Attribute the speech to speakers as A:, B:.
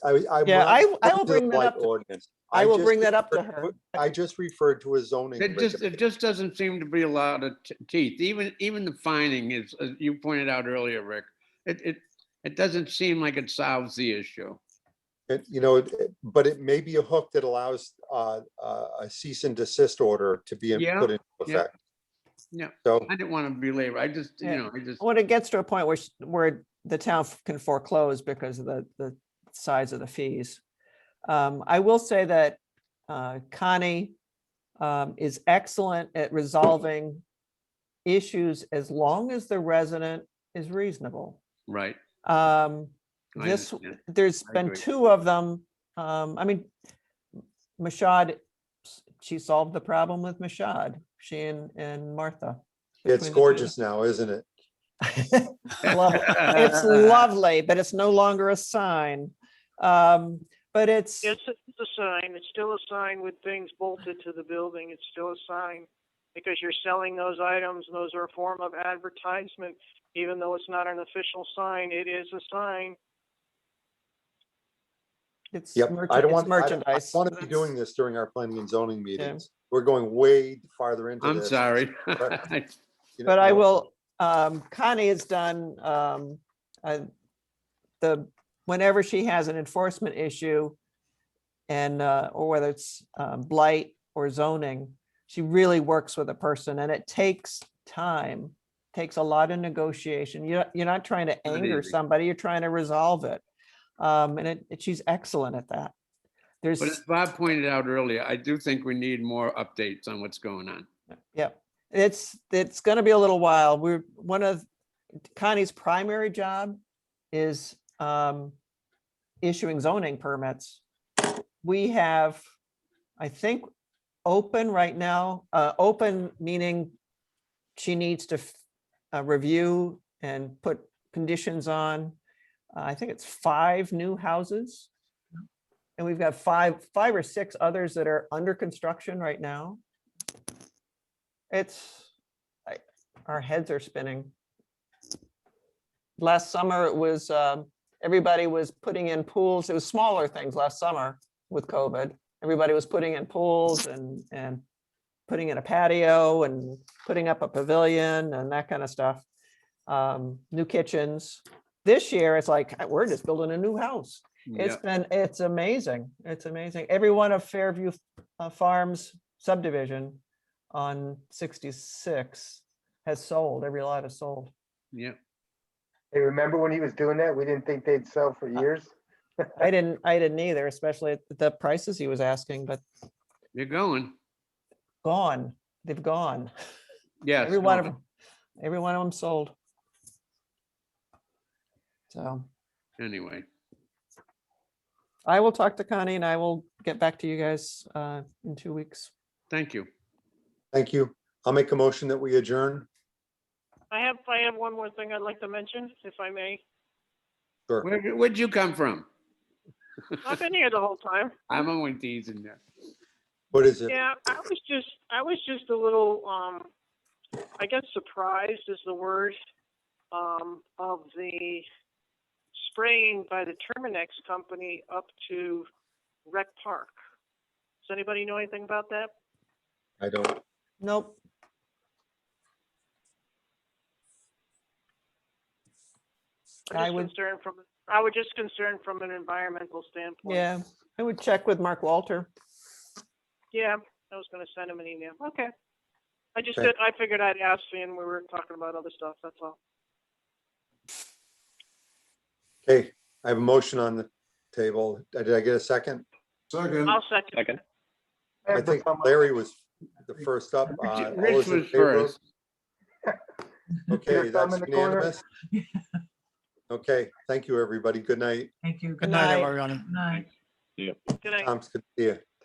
A: I, I.
B: Yeah, I-
A: went
B: I will
A: to
B: bring that
A: light
B: up to-
A: ordinance.
B: I will
A: just
B: bring that up to
A: referred
B: her.
A: I just referred to a zoning.
C: It just,
A: regulation.
C: it just doesn't seem to be a lot of t- teeth, even, even the finding is, as you pointed out earlier, Rick. It, it, it doesn't seem like it solves the issue.
A: It- You know, it- it- but it may be a hook that allows uh, uh, a cease and desist order to be in-
C: Yeah,
A: put into
C: yeah,
A: effect.
C: yeah.
A: So,
C: I didn't want to belabor, I just, you
B: Yeah.
C: know, I just,
B: When it gets to a point where, sh- where the town f- can foreclose because of the, the size of the fees. Um, I will say that, uh, Connie, um, is excellent at resolving issues as long as the resident is reasonable.
C: right.
B: Um,
C: I
B: this,
C: understand.
B: there's
C: I
B: been
C: agree.
B: two of them. Um, I mean, Mashad, s- she solved the problem with Mashad, she and, and Martha.
A: it's
B: between the two of
A: gorgeous now, isn't it?
B: them. Love it. It's lovely, but it's no longer a sign. Um, but it's,
D: Yes, it's a sign. It's still a sign with things bolted to the building. It's still a sign. Because you're selling those items, and those are a form of advertisement, even though it's not an official sign, it is a sign.
B: it's
A: Yep.
B: merch-
A: I don't
B: it's
A: want, I
B: merchandise.
A: want to be
B: That's-
A: doing this during our planning and zoning meetings. We're going way farther into
C: I'm
A: this,
C: sorry.
A: But- you know-
B: But I
A: no,
B: will, um, Connie has done, um, uh, the, whenever she has an enforcement issue and, uh, or whether it's, um, blight or zoning, she really works with a person and it takes time, takes a lot of negotiation. You're, you're not trying to
C: Not
B: anger
C: easy.
B: somebody, you're trying to resolve it. Um, and it, it- she's excellent at that. There's,
C: But as Bob pointed out earlier, I do think we need more updates on what's going on.
B: Yep, it's, it's gonna be a little while. We're, one of Connie's primary job is um issuing zoning permits. We have, I think, open right now, uh, open meaning she needs to f- uh, review and put conditions on. uh, I think it's five new houses. And we've got five, five or six others that are under construction right now. It's, I- our heads are spinning. Last summer, it was, um, everybody was putting in pools. It was smaller things last summer with COVID. Everybody was putting in pools and, and putting in a patio and putting up a pavilion and that kind of stuff. Um, New kitchens. This year, it's like, "Uh, we're just building a new house. It's
C: Yeah,
B: been, it's amazing. It's amazing. Every one of Fairview uh, Farms subdivision on 66 has sold. Every lot has sold.
C: yeah.
E: Hey, remember when he was doing that? We didn't think they'd sell for years.
B: I didn't, I didn't either, especially at the prices he was asking, but
C: You're going.
B: gone, they've gone.
C: Yes.
B: Every one
C: no,
B: of them, every one of them sold. So
C: Anyway,
B: I will talk to Connie and I will get back to you guys uh, in two weeks.
C: thank you.
A: Thank you. I'll make a motion that we adjourn.
D: I have, I have one more thing I'd like to mention, if I may.
A: Sure.
C: Where, where'd you come from?
D: I've been here the whole time.
C: I'm only teasing you.
A: What is it?
D: Yeah, I was just, I was just a little, um, I guess surprised is the word, um, of the spraying by the Terminex company up to Rec Park. Does anybody know anything about that?
A: I don't,
B: Nope.
D: I'm
B: I
D: just
B: would-
D: concerned from, I was just concerned from an environmental standpoint.
B: Yeah, I would check with Mark Walter.
D: Yeah, I was gonna send him an email. Okay. I just,
A: Okay.
D: did- I figured I'd ask you and we were talking about other stuff, that's all.
A: okay, I have a motion on the table. Uh, Did I get a second?
F: Second,
D: I'll second.
G: Second.
A: I think Larry was the first up. Uh, all
C: Rich
A: those in
C: was
A: favor?
C: first.
A: Okay,
E: Your thumb
A: that's
E: in the corner.
A: unanimous. Okay, thank you, everybody. Good night.
H: Thank you.
B: Good night.
H: Good night.
D: Good night.
A: Tom's good to see you.